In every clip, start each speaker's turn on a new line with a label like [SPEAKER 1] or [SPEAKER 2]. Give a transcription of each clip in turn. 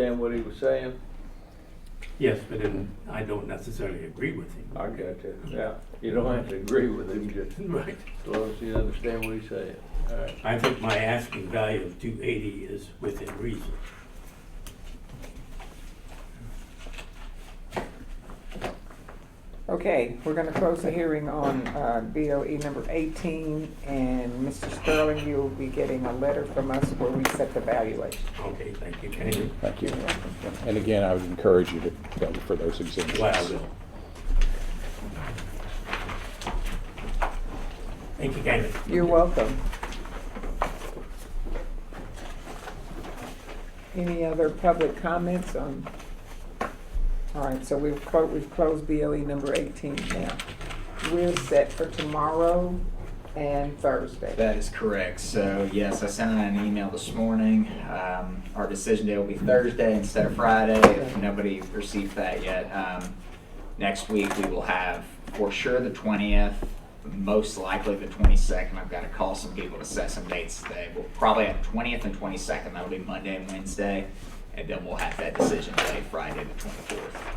[SPEAKER 1] Understand what he was saying?
[SPEAKER 2] Yes, but then I don't necessarily agree with him.
[SPEAKER 1] I got you, yeah. You don't have to agree with him, just
[SPEAKER 2] Right.
[SPEAKER 1] as long as you understand what he's saying. All right.
[SPEAKER 2] I think my asking value of two eighty is within reason.
[SPEAKER 3] Okay, we're gonna close the hearing on uh, BOE number 18, and Mr. Sterling, you'll be getting a letter from us where we set the valuation.
[SPEAKER 2] Okay, thank you, Kenny.
[SPEAKER 4] Thank you. And again, I would encourage you to go for those exhibits.
[SPEAKER 2] Well, I will. Thank you, Kenny.
[SPEAKER 3] You're welcome. Any other public comments on? All right, so we've closed, we've closed BOE number 18 now. We're set for tomorrow and Thursday.
[SPEAKER 5] That is correct. So yes, I sent out an email this morning. Um, our decision day will be Thursday instead of Friday. If nobody received that yet, um, next week we will have for sure the twentieth, most likely the twenty-second. I've got to call some people to set some dates today. We'll probably have twentieth and twenty-second. That'll be Monday and Wednesday, and then we'll have that decision day Friday the twenty-fourth.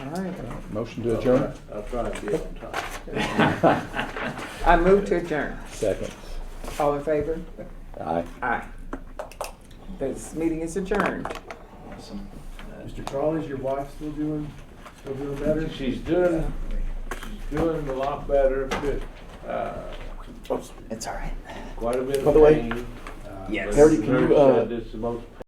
[SPEAKER 3] All right,
[SPEAKER 4] Motion to adjourn?
[SPEAKER 1] I'll try and be on time.
[SPEAKER 3] I move to adjourn.
[SPEAKER 4] Second.
[SPEAKER 3] All in favor?
[SPEAKER 4] Aye.
[SPEAKER 3] Aye. This meeting is adjourned.
[SPEAKER 5] Awesome.
[SPEAKER 6] Mr. Carl, Uh, is your wife still doing, still doing better?
[SPEAKER 1] She's doing, she's doing a lot better, but, uh,
[SPEAKER 5] It's all right.
[SPEAKER 1] quite a bit
[SPEAKER 7] By
[SPEAKER 1] of
[SPEAKER 7] the way,
[SPEAKER 1] pain. uh,
[SPEAKER 5] Yes.
[SPEAKER 1] but
[SPEAKER 7] Harry, can you,
[SPEAKER 1] nurse said
[SPEAKER 7] uh,
[SPEAKER 1] This is the most